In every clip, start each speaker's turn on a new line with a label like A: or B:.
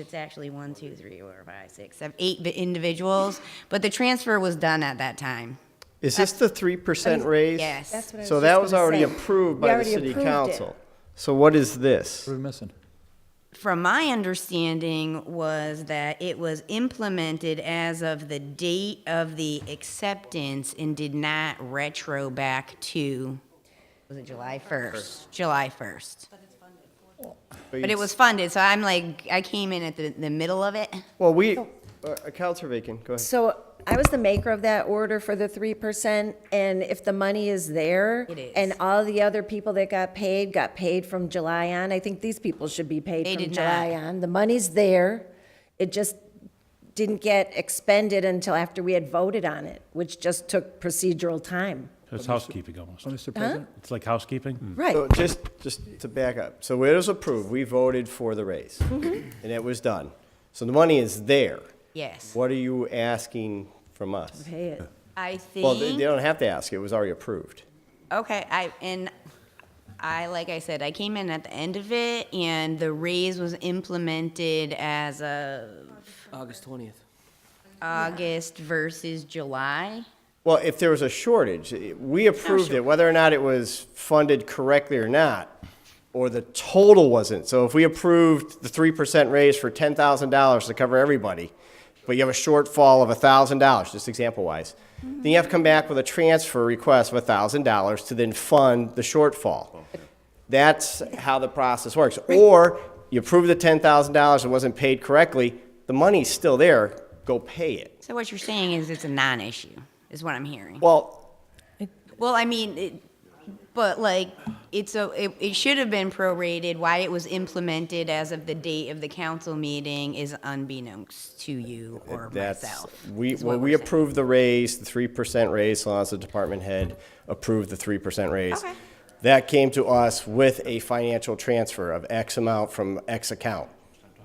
A: It's actually one, two, three, four, five, six, seven, eight vi- individuals, but the transfer was done at that time.
B: Is this the three percent raise?
A: Yes.
C: That's what I was just
B: So that was
C: gonna
B: already
C: say.
B: approved
C: We
B: by the
C: already
B: city
C: approved it.
B: council. So what is this?
D: What are we missing?
A: From my understanding was that it was implemented as of the date of the acceptance and did not retro back to, was it July 1st? July 1st. But it was funded, so I'm like, I came in at the, the middle of it.
B: Well, we,
C: Oh.
B: uh, Counselor Bacon, go ahead.
C: So I was the maker of that order for the three percent, and if the money is there.
A: It is.
C: And all the other people that got paid, got paid from July on, I think these people should be paid
A: They
C: from
A: did
C: July
A: not.
C: on. The money's there, it just didn't get expended until after we had voted on it, which just took procedural time.
E: It's housekeeping almost.
D: Mr. Oh, President?
E: It's like housekeeping.
C: Right.
B: So just, just to back up, so it was approved, we voted for the raise,
C: Mm-hmm.
B: and it was done. So the money is there.
A: Yes.
B: What are you asking from us?
C: Pay it.
A: I
B: Well, they, they
A: think,
B: don't have to ask, it was already approved.
A: okay, I, and I, like I said, I came in at the end of it and the raise was implemented as of
F: August 20th.
A: August versus July.
B: Well, if there was a shortage, it- we approved it, whether or not it was funded correctly or not, or the total wasn't. So if we approved the three percent raise for ten thousand dollars to cover everybody, but you have a shortfall of thousand dollars, just example wise, then you have to come back with a transfer request of thousand dollars to then fund the shortfall. That's how the process works. Or you approve the ten thousand dollars, it wasn't paid correctly, the money's still there, go pay it.
A: So what you're saying is it's a non-issue, is what I'm hearing.
B: Well,
A: Well, I mean, it, but like, it's a, it, it should have been prorated. Why it was implemented as of the date of the council meeting is unbeknownst to you or
B: That's-
A: myself.
B: We,
A: is
B: well,
A: what
B: we
A: we're saying.
B: approved the raise, the three percent raise, so long as the department head approved the three percent raise.
A: Okay.
B: That came to us with a financial transfer of X amount from X account.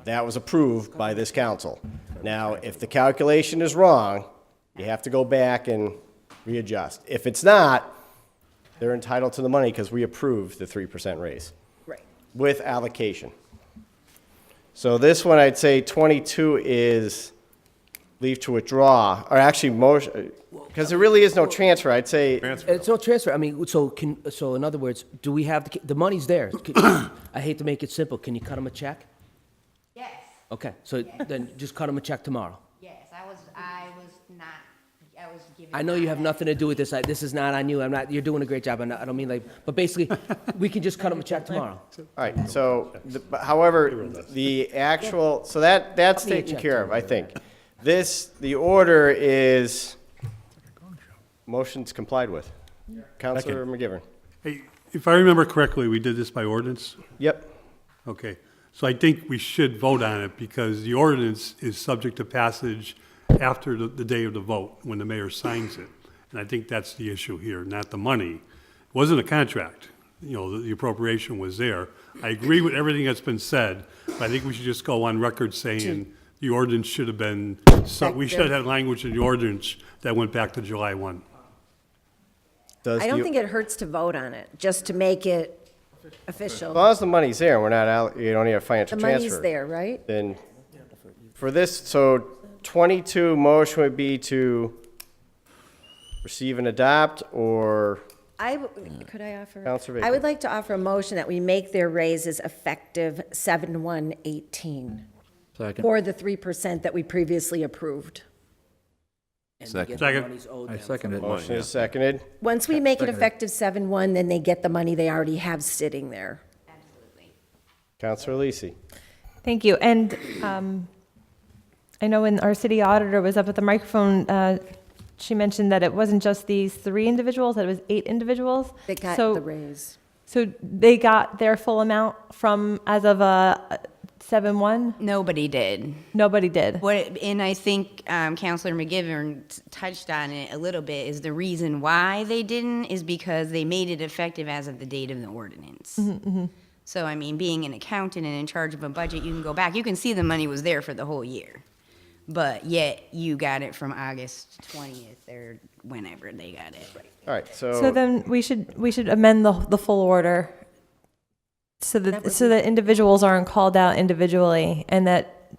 B: That was approved by this council. Now, if the calculation is wrong, you have to go back and readjust. If it's not, they're entitled to the money because we approved the three percent raise.
C: Right.
B: With allocation. So this one, I'd say 22 is leave to withdraw, or actually motion, because there really is no transfer, I'd say,
F: It's no transfer. I mean, Uh, so can, so in other words, do we have, the ca- the money's there. Can- I hate to make it simple. Can you cut them a check?
A: Yes,
F: Okay, so then just cut them a check tomorrow.
A: yes, I was, I was not, I was giving.
F: I know you have nothing to do with this. I- This is not on you. I'm not, you're doing a great job. I'm not- I don't mean like, but basically, we can just cut them a check tomorrow.
B: all right, so, the- but however, the actual, so that, that's
F: Give me a
B: taken
F: check,
B: care of, I think. This, the order is, motion's complied with. Counselor McGivern.
G: Hey, if I remember correctly, we did this by ordinance?
B: Yep,
G: Okay, so I think we should vote on it because the ordinance is subject to passage after the, the day of the vote, when the mayor signs it. And I think that's the issue here, not the money. It wasn't a contract, you know, the- the appropriation was there. I agree with everything that's been said, but I think we should just go on record saying the ordinance should have been, so, we should have had language in the ordinance that went back to July one.
B: does
C: I don't
B: the-
C: think it hurts to vote on it, just to make it
B: As
C: official.
B: long as the money's there, we're not, out. you don't need a
C: The
B: financial transfer.
C: money's there, right?
B: Then, for this, so 22 motion would be to receive and adopt, or,
C: I, w- could I offer?
B: Counselor
C: I
B: Bacon.
C: would like to offer a motion that we make their raises effective seven one eighteen
D: Second.
C: for the three percent that we previously approved.
F: And they get the
G: Second.
F: monies owed
D: I
F: them.
D: second it.
B: motion is seconded.
C: Once we make it effective seven one, then they get the money they already have sitting there.
B: Counselor Lisi.
H: Thank you. And um, I know when our city auditor was up at the microphone, uh, she mentioned that it wasn't just these three individuals, that it was eight individuals.
C: They got
H: So-
C: the raise.
H: So they got their full amount from, as of a seven-one?
A: Nobody did.
H: Nobody did.
A: What, and I think um, Counselor McGivern t- touched on it a little bit, is the reason why they didn't is because they made it effective as of the date of the ordinance. So, I mean, being an accountant and in charge of a budget, you can go back, you can see the money was there for the whole year. But yet, you got it from August 20th or whenever they got it.
B: All right,
H: So
B: so,
H: then we should, we should amend the, the full order so that, so that individuals aren't called out individually and that